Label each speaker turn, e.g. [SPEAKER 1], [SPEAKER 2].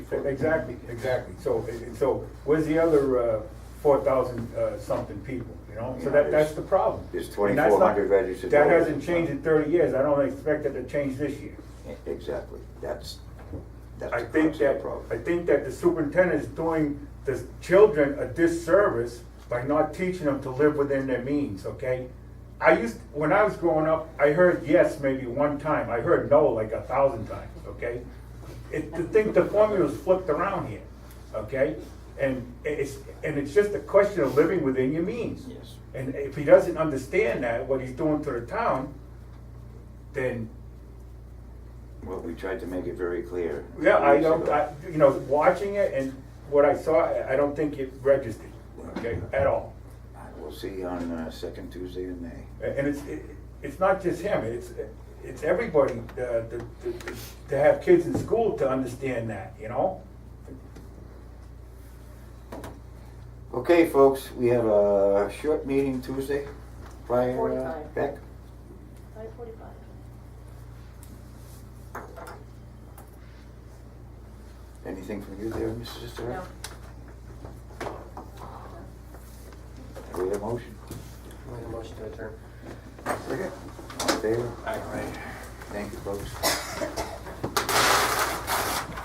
[SPEAKER 1] Exactly, exactly. So, and so where's the other uh, four thousand uh, something people, you know? So that, that's the problem.
[SPEAKER 2] There's
[SPEAKER 1] And that's not-
[SPEAKER 2] 2,400 registered
[SPEAKER 1] That
[SPEAKER 2] voters.
[SPEAKER 1] hasn't changed in thirty years. I don't expect it to change this year.
[SPEAKER 2] Exactly, that's, that's
[SPEAKER 1] I
[SPEAKER 2] the
[SPEAKER 1] think
[SPEAKER 2] crux of the
[SPEAKER 1] that,
[SPEAKER 2] problem.
[SPEAKER 1] I think that the superintendent is doing the children a disservice by not teaching them to live within their means, okay? I used, when I was growing up, I heard yes maybe one time, I heard no like a thousand times, okay? It, the thing, the formula's flipped around here, okay? And it's, and it's just a question of living within your means.
[SPEAKER 2] Yes.
[SPEAKER 1] And if he doesn't understand that, what he's doing to the town, then
[SPEAKER 2] Well, we tried to make it very clear.
[SPEAKER 1] Yeah, I
[SPEAKER 2] years
[SPEAKER 1] don't,
[SPEAKER 2] ago.
[SPEAKER 1] I, you know, watching it and what I saw, I- I don't think it registered, okay, at all.
[SPEAKER 2] I will see on uh, second Tuesday in May.
[SPEAKER 1] And it's, it- it's not just him, it's, it's everybody, uh, to, to- to have kids in school to understand that, you know?
[SPEAKER 2] Okay, folks, we have a short meeting Tuesday prior, uh,
[SPEAKER 3] 45.
[SPEAKER 2] Beck?
[SPEAKER 3] Five forty-five.
[SPEAKER 2] Anything from you there, Mrs. Sister?
[SPEAKER 3] No.
[SPEAKER 2] We have a motion.
[SPEAKER 4] Make a motion to adjourn.
[SPEAKER 2] Second. All in favor? All right. Thank you, folks.